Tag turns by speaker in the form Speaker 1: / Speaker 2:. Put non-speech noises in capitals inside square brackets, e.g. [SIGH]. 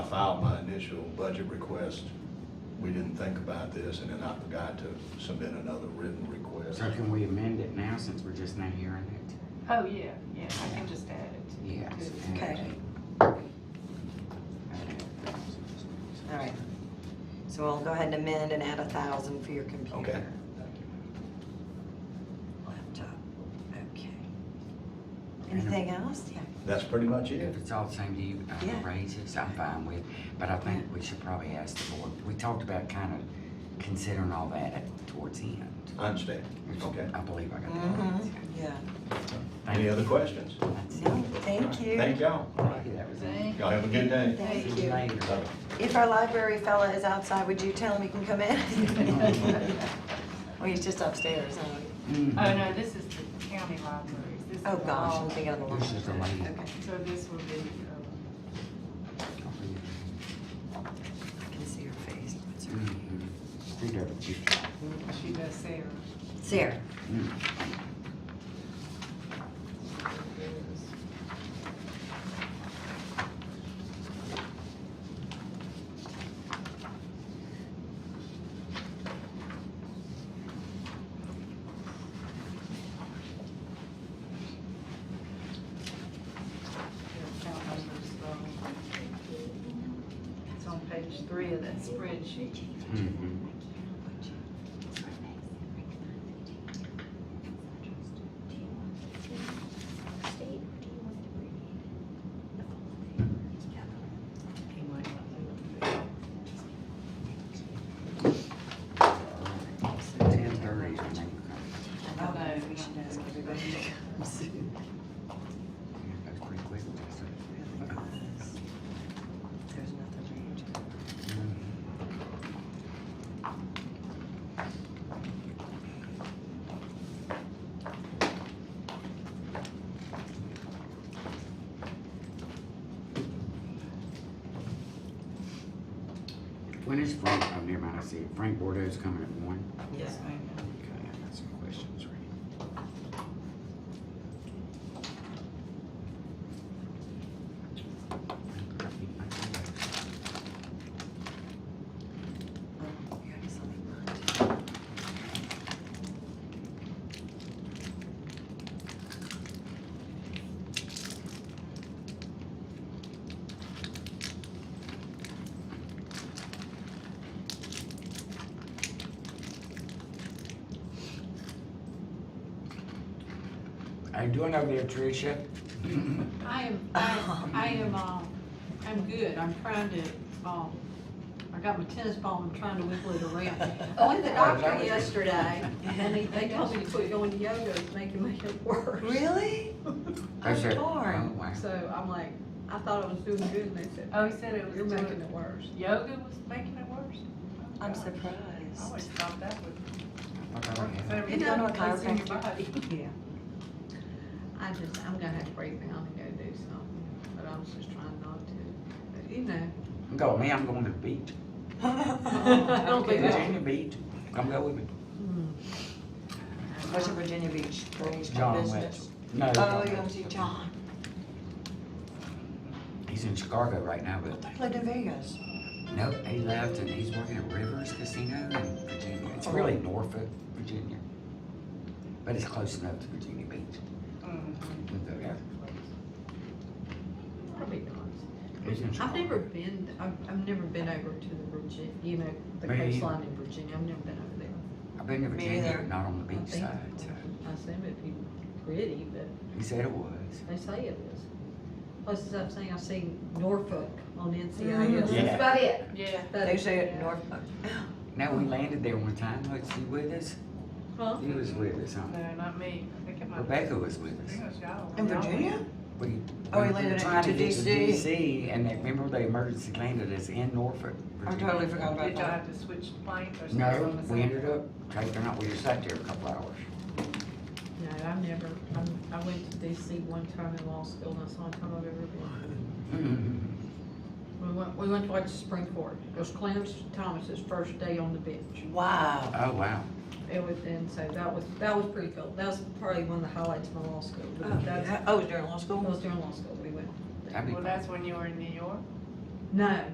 Speaker 1: filed my initial budget request, we didn't think about this, and then I forgot to submit another written request.
Speaker 2: So can we amend it now since we're just now hearing it?
Speaker 3: Oh, yeah, yeah, I can just add it. to-
Speaker 2: Yes. [LAUGHS]
Speaker 3: to-
Speaker 4: Okay. All right. So we'll go ahead and amend and add a thousand for your computer.
Speaker 1: Okay.
Speaker 4: Laptop, okay. Anything else? Yeah.
Speaker 1: That's pretty much it.
Speaker 2: If it's all the same to you, uh,
Speaker 4: Yeah.
Speaker 2: raises, I'm fine with, but I think we should probably ask the board, we talked about kind of considering all that at- towards the end.
Speaker 1: I understand.
Speaker 2: which
Speaker 1: Okay.
Speaker 2: I believe I got that. right.
Speaker 4: Mhm, Yeah.
Speaker 2: Thank
Speaker 1: Any
Speaker 2: you.
Speaker 1: other questions?
Speaker 2: That's it.
Speaker 4: No, thank you.
Speaker 1: Thank y'all. All right.
Speaker 2: Thank you, that was it.
Speaker 3: Thank
Speaker 1: Y'all have a good day.
Speaker 4: Thank
Speaker 2: See
Speaker 4: you.
Speaker 2: later.
Speaker 1: Bye.
Speaker 4: If our library fella is outside, would you tell him he can
Speaker 2: [LAUGHS]
Speaker 4: come in? Well, he's just upstairs, huh?
Speaker 2: Mhm.
Speaker 3: Oh, no, this is the county libraries. This is
Speaker 4: Oh, gosh,
Speaker 3: all-
Speaker 4: I'm thinking of the
Speaker 2: This is the
Speaker 4: library.
Speaker 2: lady.
Speaker 4: Okay,
Speaker 3: So this will be, um,
Speaker 4: I can see her face. What's her name?
Speaker 2: Mhm. Read her picture.
Speaker 3: uh, she does Sarah.
Speaker 4: Sarah.
Speaker 2: Mhm.
Speaker 3: Their account numbers, um, It's on page three of that spreadsheet.
Speaker 2: Mhm.
Speaker 3: He might not do
Speaker 2: Ten thirty, I think.
Speaker 4: I know, maybe Oh, we should ask everybody to come soon.
Speaker 2: That's pretty quick. that's it.
Speaker 4: Really was. There's nothing for you to do.
Speaker 2: Mhm. When is Frank, oh, never mind, I see, it. Frank Bordeaux's coming at one?
Speaker 3: it. Yes, ma'am.
Speaker 2: Okay, I got some questions right
Speaker 4: Oh, you already saw that one.
Speaker 2: How you doing over there, Tricia?
Speaker 3: [LAUGHS]
Speaker 5: I am, I, I am, um, I'm good, I'm trying to, um, I got my tennis ball, I'm trying to wiggle it around. I went to
Speaker 2: [LAUGHS] Oh,
Speaker 5: the doctor yesterday, and he- they told me to quit going to yoga, it's making my hip worse.
Speaker 4: Really?
Speaker 2: I
Speaker 4: I'm
Speaker 2: said,
Speaker 4: torn.
Speaker 2: oh, wow.
Speaker 5: So I'm like, I thought I was doing good, and they said,
Speaker 3: Oh, he said it was
Speaker 5: you're making
Speaker 3: doing,
Speaker 5: it worse. [LAUGHS]
Speaker 3: yoga was making it worse? Oh,
Speaker 4: I'm
Speaker 3: gosh. I always
Speaker 4: surprised. [LAUGHS]
Speaker 3: thought that would.
Speaker 2: What do I have?
Speaker 4: You don't know a
Speaker 3: It's in your
Speaker 4: chiropractor?
Speaker 3: body.
Speaker 4: Yeah.
Speaker 5: I just, I'm gonna have to break down and go do something, but I was just trying not to, but you know. [LAUGHS]
Speaker 2: I'm going, man, I'm going to the beach.
Speaker 5: I don't think that's-
Speaker 2: Virginia Beach. Come go with me.
Speaker 4: What's your Virginia Beach thing?
Speaker 2: John
Speaker 4: business?
Speaker 2: Wetzel. No.
Speaker 4: Oh,
Speaker 2: John
Speaker 4: you
Speaker 2: Wetzel.
Speaker 4: MC John.
Speaker 2: He's in Chicago right now, but
Speaker 4: Played in Vegas.
Speaker 2: nope, he left and he's working at Rivers Casino in Virginia. It's really Norfolk, Virginia. But it's close enough to Virginia Beach.
Speaker 3: Mm-hmm.
Speaker 2: We'll go there.
Speaker 5: Probably not.
Speaker 2: He's in
Speaker 5: I've
Speaker 2: Chicago.
Speaker 5: never been, I've, I've never been over to the Virginia, you know, the
Speaker 2: Me either.
Speaker 5: coastline in Virginia, I've never been over there.
Speaker 2: I've been to
Speaker 4: Me
Speaker 2: Virginia,
Speaker 4: either.
Speaker 2: but not on the
Speaker 5: I
Speaker 2: beach
Speaker 5: think-
Speaker 2: side, so.
Speaker 5: I assume it'd be pretty, but
Speaker 2: He said it was.
Speaker 5: they say it is. Plus, as I'm saying, I've seen Norfolk on NCIS,
Speaker 4: Mhm.
Speaker 2: Yeah.
Speaker 5: that's about it.
Speaker 3: Yeah.
Speaker 5: But-
Speaker 4: They say it
Speaker 5: yeah.
Speaker 4: in Norfolk.
Speaker 2: Now, we landed there one time. Was he with us?
Speaker 5: Huh?
Speaker 2: He was with us, huh?
Speaker 3: No, not me. I think it might.
Speaker 2: Rebecca was with
Speaker 3: I
Speaker 2: us.
Speaker 3: think it was y'all.
Speaker 4: In
Speaker 3: Y'all-
Speaker 4: Virginia?
Speaker 2: We,
Speaker 4: Oh,
Speaker 2: we
Speaker 4: he
Speaker 2: were
Speaker 4: landed
Speaker 2: trying to
Speaker 4: into
Speaker 2: get to
Speaker 4: DC.
Speaker 2: DC, and they, remember they emergency landed us in Norfolk,
Speaker 4: I
Speaker 2: Virginia.
Speaker 4: totally forgot about
Speaker 3: Did y'all
Speaker 4: that.
Speaker 3: have to switch planes or something?
Speaker 2: No,
Speaker 3: Or
Speaker 2: we
Speaker 3: something?
Speaker 2: ended up taking out, we were sat there a couple hours.
Speaker 5: No, I've never, I'm, I went to DC one time in law school, and that's the only time I've ever been.
Speaker 2: Mm-hmm.
Speaker 5: We went, we went to watch the Supreme Court, it was Clarence Thomas's first day on the bench.
Speaker 4: Wow.
Speaker 2: Oh, wow.
Speaker 5: It was, and so that was, that was pretty cool, that was probably one of the highlights of my law school. but that's-
Speaker 4: Oh, during law
Speaker 5: I
Speaker 4: school?
Speaker 5: was during law school, we went.
Speaker 2: That'd be
Speaker 3: Well, that's when you were in New York?
Speaker 5: No,